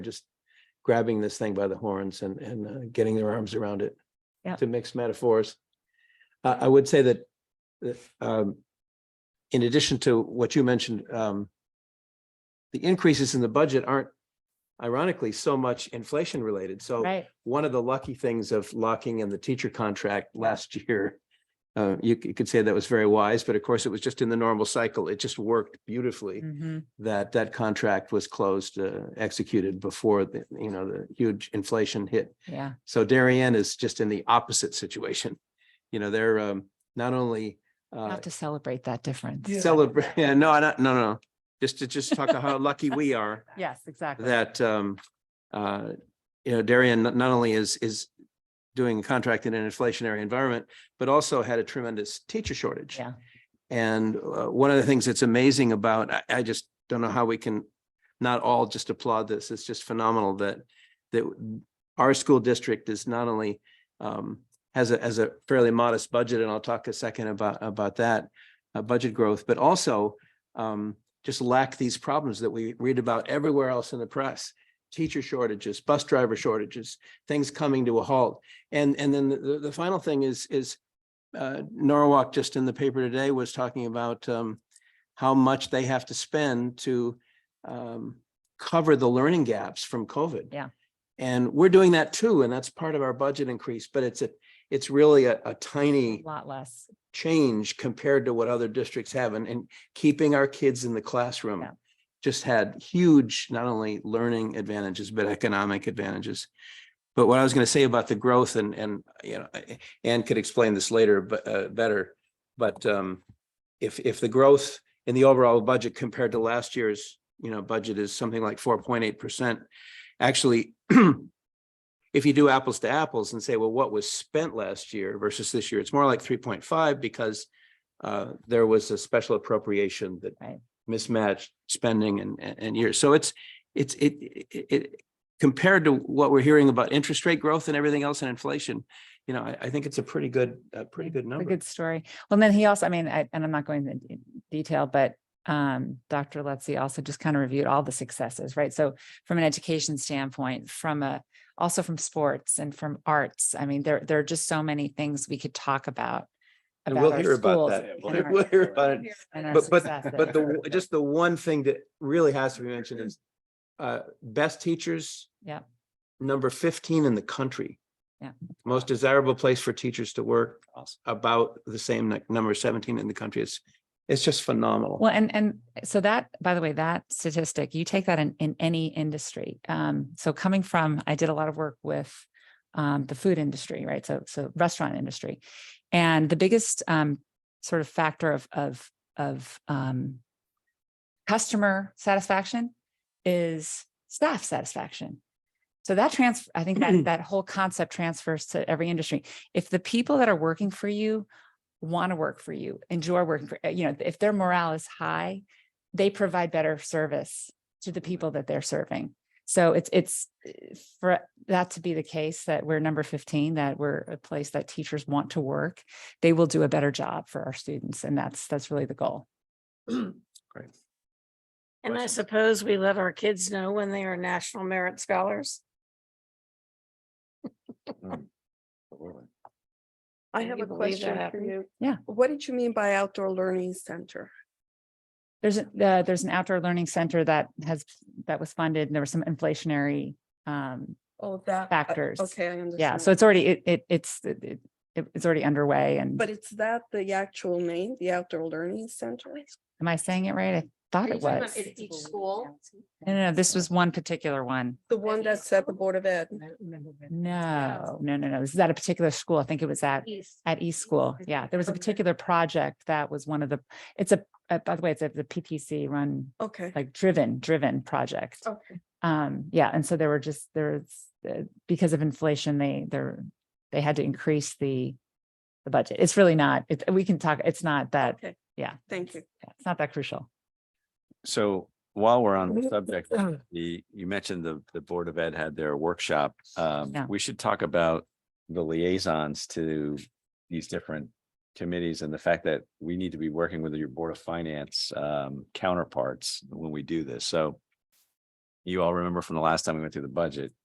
just grabbing this thing by the horns and, and uh, getting their arms around it. Yeah. To mix metaphors. I, I would say that, that, um, in addition to what you mentioned, um, the increases in the budget aren't ironically so much inflation related. So Right, one of the lucky things of locking in the teacher contract last year. Uh, you c- you could say that was very wise, but of course it was just in the normal cycle. It just worked beautifully Mhm. that that contract was closed, uh, executed before the, you know, the huge inflation hit. yeah, So Darien is just in the opposite situation. You know, they're, um, not only, We'll uh, have to celebrate that difference. celebrate, yeah, no, I don't- no, no, just to just talk about how lucky we are Yes, exactly. that um uh you know Darien not not only is is doing a contract in an inflationary environment, but also had a tremendous teacher shortage. Yeah. And uh, one of the things that's amazing about, I I just don't know how we can not all just applaud this. It's just phenomenal that that our school district is not only um has a has a fairly modest budget, and I'll talk a second about about that uh, budget growth, but also um just lack these problems that we read about everywhere else in the press. Teacher shortages, bus driver shortages, things coming to a halt. And and then the- the the final thing is is uh Norwalk just in the paper today was talking about um how much they have to spend to um cover the learning gaps from COVID. Yeah. And we're doing that too, and that's part of our budget increase, but it's a, it's really a a tiny A lot less. change compared to what other districts have and, and keeping our kids in the classroom. Yeah. Just had huge, not only learning advantages, but economic advantages. But what I was going to say about the growth and, and, you know, I- Ann could explain this later, but, uh, better. But, um, if, if the growth in the overall budget compared to last year's, you know, budget is something like four point eight percent, actually, if you do apples to apples and say, well, what was spent last year versus this year, it's more like three point five because uh, there was a special appropriation that Right. mismatched spending and, and- and years. So it's, it's, it, it, it- compared to what we're hearing about interest rate growth and everything else and inflation, you know, I, I think it's a pretty good, a pretty good A number. good story. Well, and then he also, I mean, I, and I'm not going into detail, but um, Dr. Letzi also just kind of reviewed all the successes, right? So from an education standpoint, from a, also from sports and from arts, I mean, there, there are just so many things we could talk about. And we'll our hear about schools that. and our- We'll hear about it. and our But, but, successes. but the, just the one thing that really has to be mentioned is uh, best teachers. Yep. Number fifteen in the country. Yeah. Most desirable place for teachers to work, Awesome. about the same nu- number seventeen in the country. It's, it's just phenomenal. Well, and and so that, by the way, that statistic, you take that in in any industry. Um, so coming from, I did a lot of work with um the food industry, right? So so restaurant industry. And the biggest um sort of factor of of of um customer satisfaction is staff satisfaction. So that transfer, I think that that whole concept transfers to every industry. If the people that are working for you want to work for you, enjoy working for, you know, if their morale is high, they provide better service to the people that they're serving. So it's it's eh, for that to be the case that we're number 15, that we're a place that teachers want to work, they will do a better job for our students. And that's that's really the goal. And I Questions? suppose we let our kids know when they are National Merit Scholars. I Can have you a believe that question for happened? you. Yeah. What did you mean by outdoor learning center? There's a- uh, there's an outdoor learning center that has that was funded and there was some inflationary um Oh, that. I- Factors. Okay, I understand. yeah, so it's already it it it's it, it, it's already underway and But it's that the actual name, the outdoor learning center? am I saying it right? I thought it was. each school? No, no, no, this was one particular one. The one that's at the Board of Ed? No, no, no, no. This is at a particular school. I think it was E at At East School, I yeah, think there was a from there. particular project that was one of the, it's a, uh, by the way, it's a the PTC run, Okay. like driven, driven project. Oh. Okay. Um, yeah, and so there were just, there's, uh, because of inflation, they, they're, they had to increase the, the budget. It's really not, it, we can talk, it's not that, Okay, yeah. thank you. yeah, It's not that crucial. So while we're Mm-hmm. on the subject, the, you mentioned the, the Board of Ed had their workshop. Um, Yeah. we should talk about the liaisons to these different committees and the fact that we need to be working with your Board of Finance um counterparts when we do this. So you all remember from the last time we went through the budget,